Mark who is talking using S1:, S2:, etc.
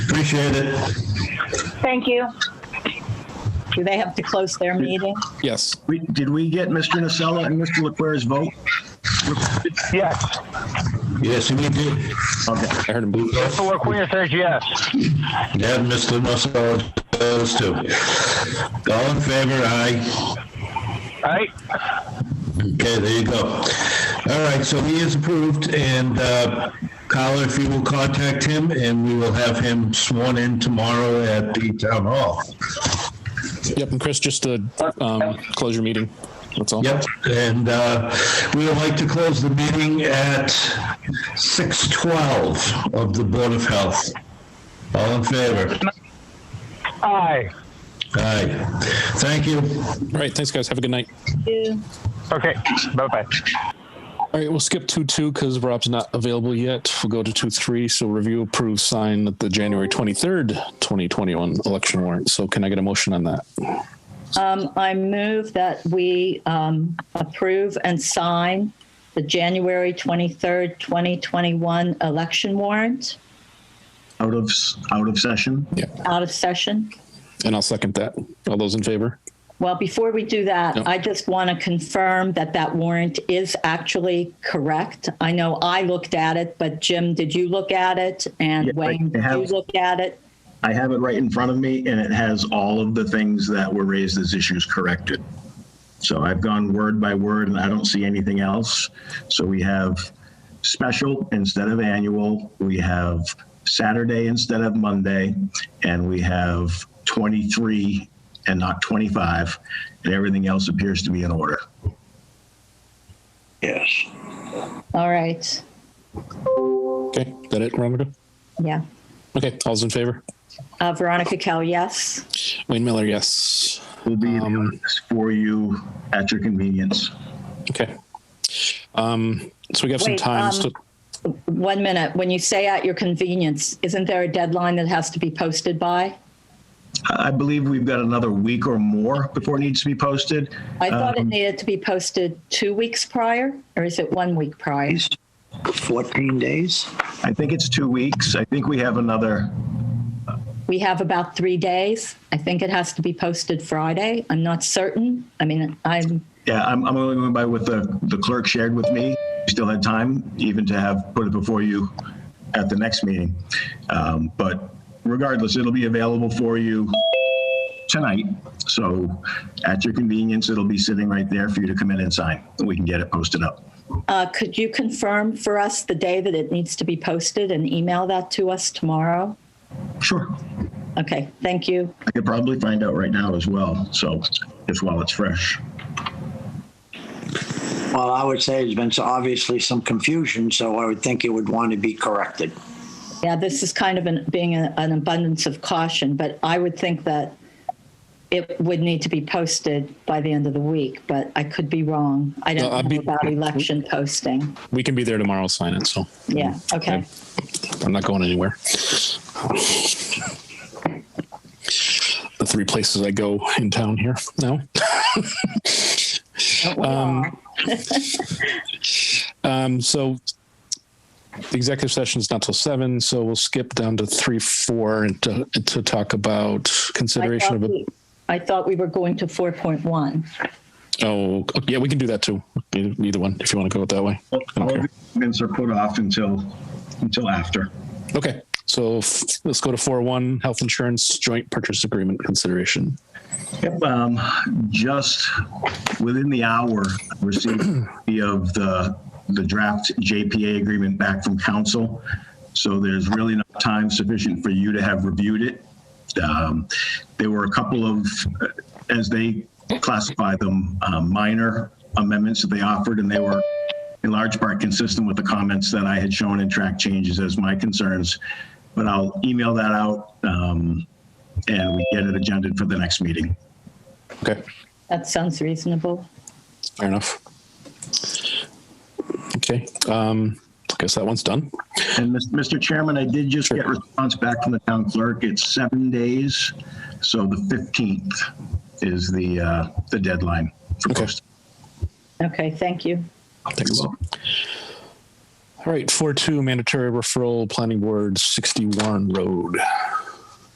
S1: Appreciate it.
S2: Thank you. Do they have to close their meeting?
S3: Yes.
S1: We- Did we get Mr. Nacella and Mr. Leclerc's vote?
S4: Yes.
S5: Yes, we did.
S1: Okay.
S3: I heard him boot.
S4: Mr. LaQueen says yes.
S5: Yeah, Mr. Musella does too. All in favor, aye.
S4: Right?
S5: Okay, there you go. All right, so he is approved, and uh, Kyle, if you will contact him, and we will have him sworn in tomorrow at the town hall.
S3: Yep. And Chris, just to um, close your meeting. That's all.
S5: Yep, and uh, we would like to close the meeting at 6:12 of the Board of Health. All in favor?
S4: Aye.
S5: Aye. Thank you.
S3: All right. Thanks, guys. Have a good night.
S2: Do-
S4: Okay, bye-bye.
S3: All right, we'll skip two two because Rob's not available yet. We'll go to two three. So review, approve, sign the January twenty third, twenty twenty one election warrant. So can I get a motion on that?
S2: Um, I move that we um, approve and sign the January 23rd, 2021 election warrant
S1: Out of, s- out of session?
S2: out of session.
S3: And I'll second that. All those in favor?
S2: Well, before we do
S3: Yep.
S2: that, I just want to confirm that that warrant is actually correct. I know I looked at it, but Jim, did you look at it?
S1: Yeah,
S2: And
S1: I
S2: Wayne, did you
S1: have-
S2: look at it?
S1: I have it right in front of me, and it has all of the things that were raised as issues corrected. So I've gone word by word, and I don't see anything else. So we have special instead of annual, we have Saturday instead of Monday, and we have 23 and not 25, and everything else appears to be in order.
S6: Yes.
S2: All right.
S3: Okay, that it, Veronica?
S2: Yeah.
S3: Okay, all's in favor?
S2: Uh, Veronica Kell, yes.
S3: Wayne Miller, yes.
S1: We'll be in
S3: Um,
S1: this for you at your convenience.
S3: Okay. Um, so we have some
S2: Wait,
S3: time.
S2: um,
S3: so-
S2: One minute. When you say at your convenience, isn't there a deadline that has to be posted by?
S1: I I believe we've got another week or more before it needs to be posted.
S2: I thought it
S1: Um,
S2: needed to be posted two weeks prior, or is it one week prior?
S6: He's 14 days.
S1: I think it's two weeks. I think we have another,
S2: We have about three days. I think it has to be posted Friday. I'm not certain. I mean, I'm,
S1: yeah, I'm, I'm only going by what the, the clerk shared with me. We Still had time even to have put it before you at the next meeting. Um, but regardless, it'll be available for you tonight. So at your convenience, it'll be sitting right there for you to come in and sign. We can get it posted up.
S2: uh, could you confirm for us the day that it needs to be posted and email that to us tomorrow?
S1: Sure.
S2: Okay, thank you.
S1: I could probably find out right now as well. So just while it's fresh.
S6: Well, I would say there's been so- obviously some confusion, so I would think it would want to be corrected.
S2: Yeah, this is kind of an, being a- an abundance of caution, but I would think that it would need to be posted by the end of the week, but I could be wrong. I
S3: No, I'd
S2: don't
S3: be-
S2: know about election posting.
S3: we can be there tomorrow, sign it. So
S2: Yeah,
S3: Mm-hmm.
S2: okay.
S3: I'm not going anywhere. The three places I go in town here now.
S2: Don't we all?
S3: Um, so the executive session is not till seven, so we'll skip down to three, four, and to, to talk about
S2: I
S3: consideration
S2: thought
S3: of a.
S2: we- I thought we were going to 4.1.
S3: Oh, yeah, we can do that too. Either either one, if you want to go it that way.
S1: All
S3: Okay.
S1: the amendments are put off until, until after.
S3: Okay, so f- let's go to four one health insurance joint purchase agreement consideration.
S1: Yep, um, just within the hour, I received a copy of the, the draft JPA agreement back from council. So there's really not time sufficient for you to have reviewed it. Um, There were a couple of, uh, as they classify them, uh, minor amendments that they offered, and they were in large part consistent with the comments that I had shown in track changes as my concerns. But I'll email that out, um, and we get it agended for the next meeting.
S3: Okay,
S2: That sounds reasonable.
S3: fair enough. Okay, um, I guess that one's done.
S1: And Mis- Mr. Chairman, I did just get response back from the town clerk. It's seven days, so the 15th is the, uh, the deadline for
S3: Okay.
S1: posting.
S2: Okay, thank you.
S3: Thanks. All right, four two mandatory referral planning board sixty one road.